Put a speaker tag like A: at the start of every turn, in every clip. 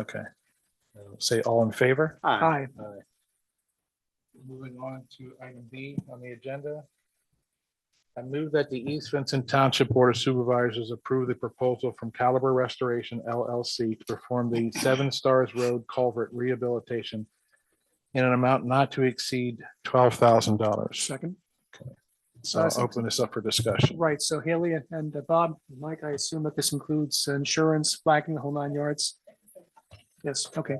A: Okay. Uh, Say all in favor?
B: Aye.
C: Aye.
A: Moving on to item B on the agenda. I move that the East Vincent Township Board of Supervisors approve the proposal from Caliber Restoration LLC to perform the Seven Stars Road Culvert Rehabilitation in an amount not to exceed twelve thousand dollars.
C: Second.
A: So I'll open this up for discussion.
C: Right, so Haley and- and uh, Bob, Mike, I assume that this includes insurance, flagging, the whole nine yards? Yes, okay,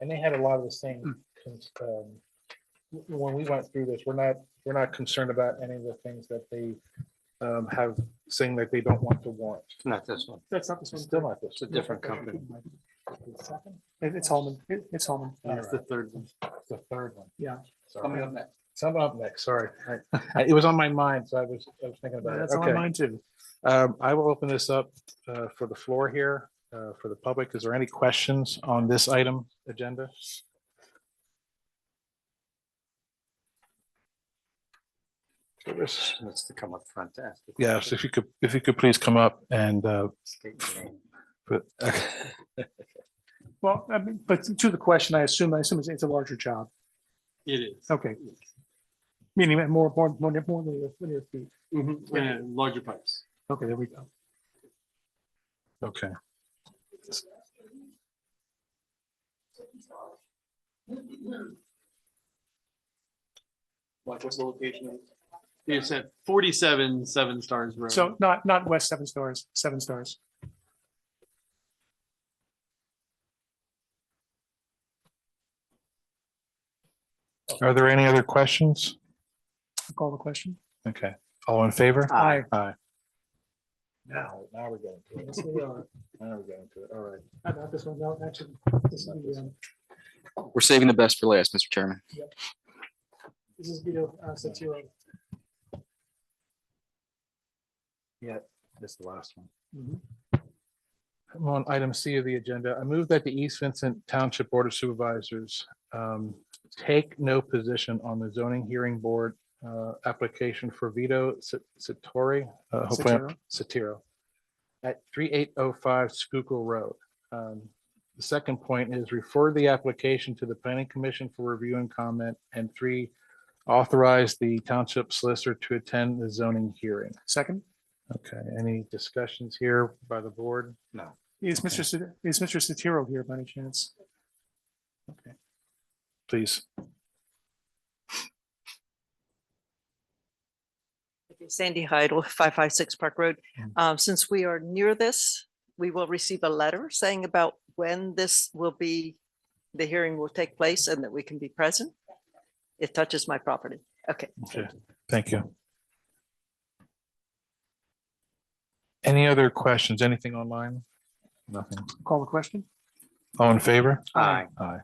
A: And they had a lot of the same, cons- um, w- when we went through this, we're not, we're not concerned about any of the things that they um, have saying that they don't want to warrant.
B: Not this one.
C: that's not this
A: It's
C: one.
A: still not this.
B: It's a different company.
C: It- It's Holman, It- it's Holman.
B: It's the third one.
A: It's The third one.
C: Yeah.
A: Coming
B: up next.
A: Some up next, sorry. I- It was on my mind, so I was, I was thinking about it.
C: That's on
A: Okay.
C: mine too.
A: Um, I will open this up uh, for the floor here, uh, for the public. Is there any questions on this item agenda? Yes,
B: Needs to come up front to ask. the
A: if you could, if you could please come up and, uh,
B: question. State your name.
A: put-
C: Well, I mean, but to the question, I assume, I assume it's- it's a larger job.
D: It is.
C: Okay. Meaning that more, more, more, more than your- than your feet.
D: Mm-hmm, And larger pipes.
C: Okay, there we go.
A: okay.
D: Like what's the location? It's at forty-seven, seven stars road.
C: So not, not West Seven Stars, Seven Stars.
A: Are there any other questions?
C: Call the question.
A: Okay, all in favor?
B: Aye.
A: Aye. Now, now we're going to it. Now we're going to it. All right.
C: I got this one, no, actually, this is the, um,
E: We're saving the best for last, Mr. Chairman.
C: this is Vito uh, Satiro.
A: This is the last one.
C: Mhm.
A: I'm On item C of the agenda, I move that the East Vincent Township Board of Supervisors um, take no position on the zoning hearing board uh, application for Vito Sa- Satori, uh, hopefully I'm- Satiro
C: Satiro.
A: at three eight oh five Schuylkill Road. Um, The second point is refer the application to the planning commission for review and comment. And three, authorize the township solicitor to attend the zoning hearing.
C: Second,
A: Okay, any discussions here by the board?
C: is Mr. Sa- is Mr. Satiro here by any chance?
A: Please.
F: Sandy Hyde, five five six Park Road.
A: Mm.
F: Um, Since we are near this, we will receive a letter saying about when this will be, the hearing will take place and that we can be present. It touches my property. Okay.
A: Okay, thank you. Any other questions? Anything online? Nothing.
C: Call the question.
A: All in favor?
B: Aye.
A: Aye.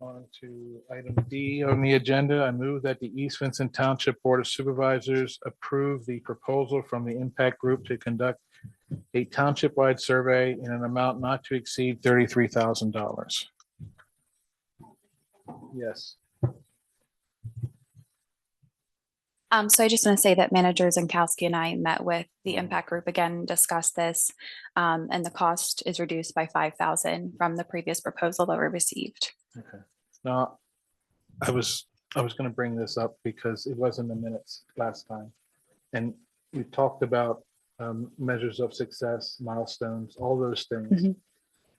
A: On to item D on the agenda. I move that the East Vincent Township Board of Supervisors approve the proposal from the Impact Group to conduct a township-wide survey in an amount not to exceed thirty-three thousand dollars. Yes.
G: Um, so I just want to say that manager Zankowski and I met with the impact group again, and discussed this. Um, and the cost is reduced by five thousand from the previous proposal that we received.
A: Okay. Now, I was, I was gonna bring this up because it was in the minutes last time. And we talked about um, measures of success, milestones, all those things.
G: Mhm.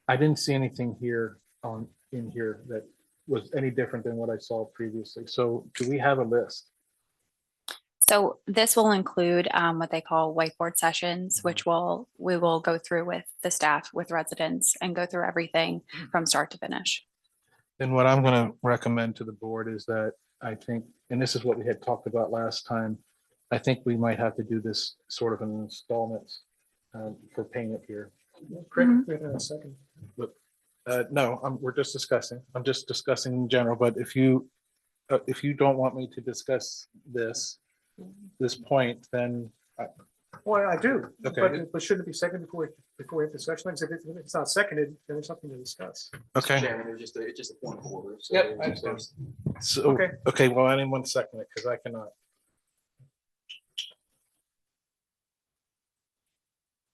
A: I didn't see anything here on, in here that was any different than what I saw previously. So do we have a list?
G: So this will include, um, what they call whiteboard sessions, which will, we will go through with the staff, with residents and go through everything from start to finish.
A: Then what I'm gonna recommend to the board is that I think, and this is what we had talked about last time. I think we might have to do this sort of in installments um, for payment here.
C: Correct. Wait a second.
A: Uh, no, i we're just discussing. I'm just discussing in general, but if you, uh, if you don't want me to discuss this, this point, then,
C: Well, I do.
A: Okay.
C: But, but shouldn't it be second before, we- before we have discussion? Because if it- if it's not seconded, then there's something to discuss.
A: okay,
H: Chairman, it was just a, it's just a point of order. so
A: Yep, I
H: it was-
A: so,
C: Okay.
A: okay, well, anyone second it, because I cannot.